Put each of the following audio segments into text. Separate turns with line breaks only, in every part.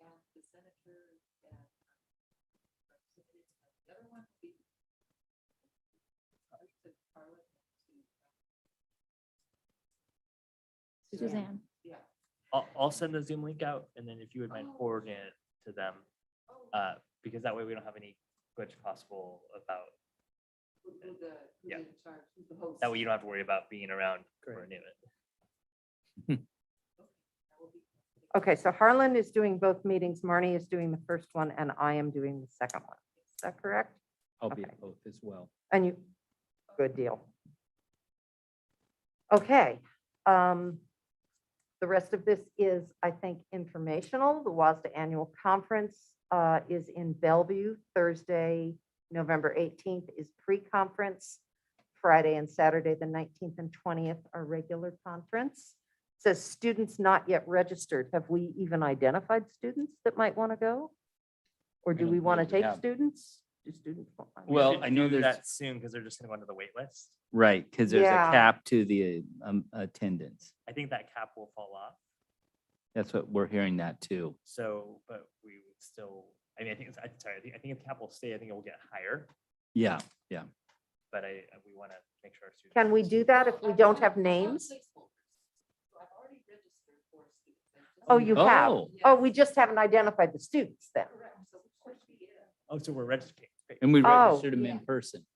um, heard that. um, like, submitted to us. The other one would be. Sorry, uh, to Carla and to, uh,
Suzanne.
Yeah.
I'll, I'll send the Zoom link out and then if you would mind
Oh.
forwarding it to them,
Oh,
uh, because that way we don't have any glitch possible about,
who- who the- who's
yeah.
in charge, who's the host?
that way you don't have to worry about being around for
Great.
any of it.
I will be-
Okay, so Harlan is doing both meetings. Marnie is doing the first one and I am doing the second one. Is that correct?
I'll be
Okay.
at both as well.
And you, good deal. Okay. um, The rest of this is, I think, informational. The WASDA Annual Conference uh, is in Bellevue. Thursday, November 18th is pre-conference. Friday and Saturday, the 19th and 20th are regular conference. Says students not yet registered. Have we even identified students that might want to go? Or
I
do
don't
we want to
believe we
take
have.
students? Do students? want- I mean-
We
Well,
should
I know
do
there's-
That soon, because they're just gonna go into the wait list.
Right, because there's a
Yeah.
cap to the um, attendance.
I think that cap will fall off.
That's what we're hearing that too.
So, but we would still, I mean, I think, it's- I'm sorry, I think, I think if cap will stay, I think it will get higher,
Yeah,
but I, uh, we want to make sure. our students
Can we do that if we don't have
I'm
names?
placeholders. So I've already registered for students. I just-
Oh, you have?
Oh.
Oh, we just haven't identified the students then.
Correct, so of course we get a-
Oh, so we're registering. Great.
and we
Oh,
registered them in
yeah.
person.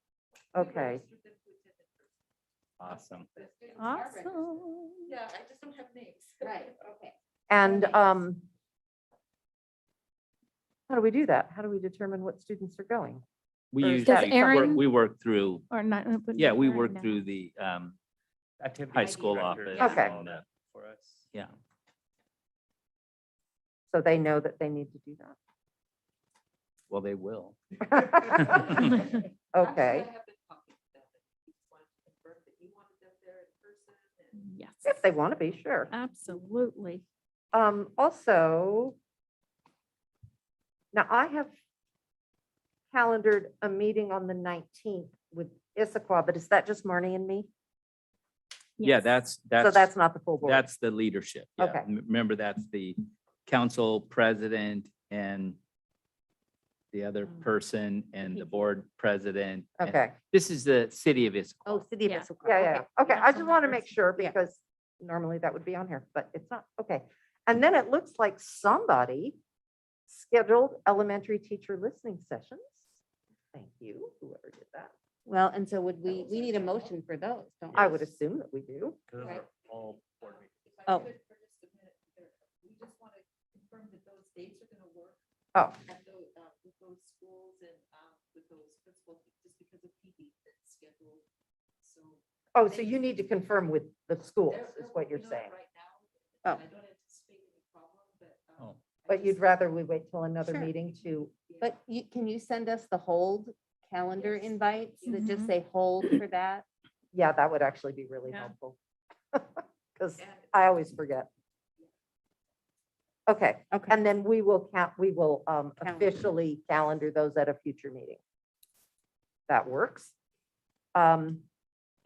we
Okay.
registered them to attend in person.
Awesome.
The students are registered.
Awesome.
Yeah, I just don't have names.
Right, okay.
And
Right.
um, how do we do that? How do we determine what students are going?
We
Or is
usually,
that
work-
Erin?
we work through,
Or not. it wouldn't
yeah,
be
we
Erin
work
now.
through the, um,
Activity
high school
director
office.
does
Okay.
all that For us.
yeah.
So they know that they need to do
Well, they will.
that.
I'm sure I
Okay,
have been talking to them, and he just wanted to confirm that he wanted them there in person and.
Yes,
if they want to be, sure.
absolutely.
Um, also, now I have calendared a meeting on the 19th with Issaquah, but is that just Marnie and me?
Yeah,
Yes.
that's,
So
that's,
that's not the full board.
that's the leadership. yeah.
Okay.
M- Remember, that's the council president and the other
Um,
person and the
PTA.
board president. and-
Okay.
This is the city of Issaquah.
Oh, city of
Yeah.
Issaquah.
Yeah, yeah, yeah. okay,
Yeah,
I
so
just want to make
that's-
sure
yeah.
because normally that would be on here, but it's not, okay. And then it looks like somebody scheduled elementary teacher listening sessions. Thank you, whoever did that.
Well, and so would we,
was
we need a
actually all.
motion for those, don't
I
we?
would assume that we do.
Because those
Right.
are all board meetings.
If I
Oh.
could for just a minute, there- we just want to confirm that those dates are going to work
Oh,
at those, uh, with those schools and, um, with those principals, just because of PD that's scheduled. So.
oh, so you need to confirm with the schools
they're-
is
they're
what you're
working on it
saying.
Right now.
Oh.
and I don't anticipate any problem, but. um,
Oh.
I
But you'd
just-
rather we wait till another
Sure.
meeting to,
yeah.
But you, can you send us the hold calendar
Yes.
invites that just
Mhm.
say hold for that?
yeah, that would actually be really
Yeah.
helpful. Because
And-
I always forget. Okay.
Okay,
And then we will count, we will um,
Calendar.
officially calendar those at a future meeting. That works. Um,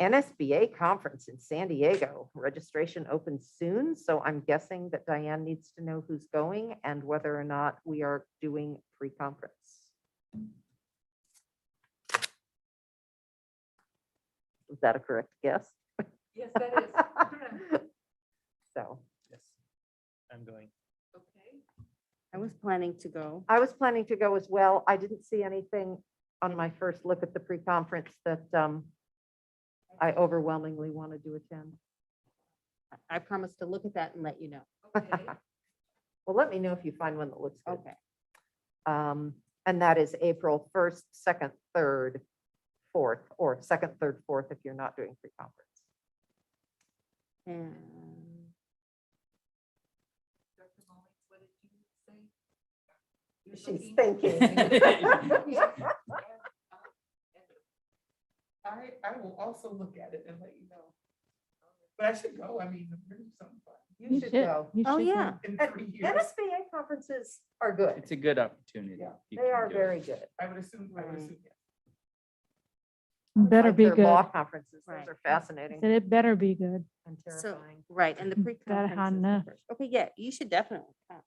NSBA conference in San Diego, registration opens soon, so I'm guessing that Diane needs to know who's going and whether or not we are doing pre-conference. Is that a correct guess?
Yes, that is. correct.
So
Yes. I'm going.
Okay.
I was planning to go.
I was planning to go as well. I didn't see anything on my first look at the pre-conference that um, I overwhelmingly wanted to attend.
I- I promised to look at that and let you know.
Okay.
Well, let me know if you find one that looks good.
Okay,
Um, And that is April 1st, 2nd, 3rd, 4th, or 2nd, 3rd, 4th if you're not doing pre-conference.
and
Dr. Mullins, what did you say? You're
She's
looking-
thinking.
I, I will also look at it and let you know. But I should go, I mean, there's something fun
You should go.
You
Oh,
should go.
yeah.
in
And
three years.
NSBA conferences are good.
It's a good opportunity.
Yeah,
You
They
can
are
do it.
very good.
I would assume, I would
Right.
assume, yeah.
Better
Like
be
their Law
good.
conferences, those
Right.
are fascinating
Said it better be good.
and
So-
terrifying.
right, and the
Better
pre-conference. is the
Hannah.
first. Okay, yeah, you should definitely. come.